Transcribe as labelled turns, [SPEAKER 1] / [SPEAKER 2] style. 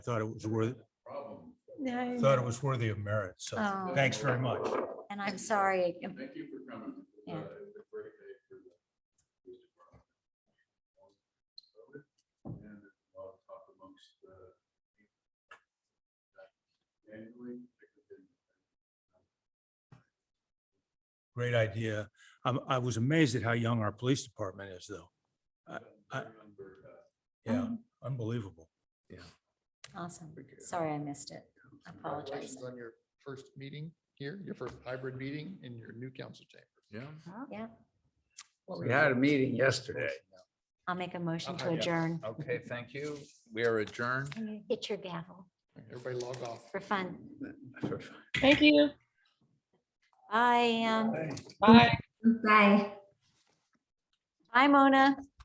[SPEAKER 1] I thought it was worth,
[SPEAKER 2] No.
[SPEAKER 1] thought it was worthy of merit, so
[SPEAKER 2] Oh,
[SPEAKER 1] thanks very much.
[SPEAKER 2] And I'm sorry. um,
[SPEAKER 3] Thank you for coming.
[SPEAKER 2] Yeah.
[SPEAKER 3] Uh, it was a great day for the police department. And a lot of talk amongst the annually.
[SPEAKER 1] Great idea. i I was amazed at how young our police department is though. I-
[SPEAKER 3] Remember, uh,
[SPEAKER 1] Yeah,
[SPEAKER 2] Um,
[SPEAKER 1] unbelievable.
[SPEAKER 2] Awesome.
[SPEAKER 3] Thank you.
[SPEAKER 2] Sorry I missed it. I apologize.
[SPEAKER 4] Congratulations on your first meeting here, your first hybrid meeting in your new council chamber.
[SPEAKER 3] Yeah.
[SPEAKER 2] Yeah.
[SPEAKER 5] We had a meeting yesterday.
[SPEAKER 2] I'll make a motion to
[SPEAKER 4] yeah.
[SPEAKER 2] adjourn.
[SPEAKER 5] Okay, thank you. We are adjourned.
[SPEAKER 2] Hit your gavel
[SPEAKER 4] Everybody log off.
[SPEAKER 2] for fun.
[SPEAKER 6] Thank you.
[SPEAKER 2] Bye, Ann.
[SPEAKER 6] Bye.
[SPEAKER 2] Bye. Bye, Mona.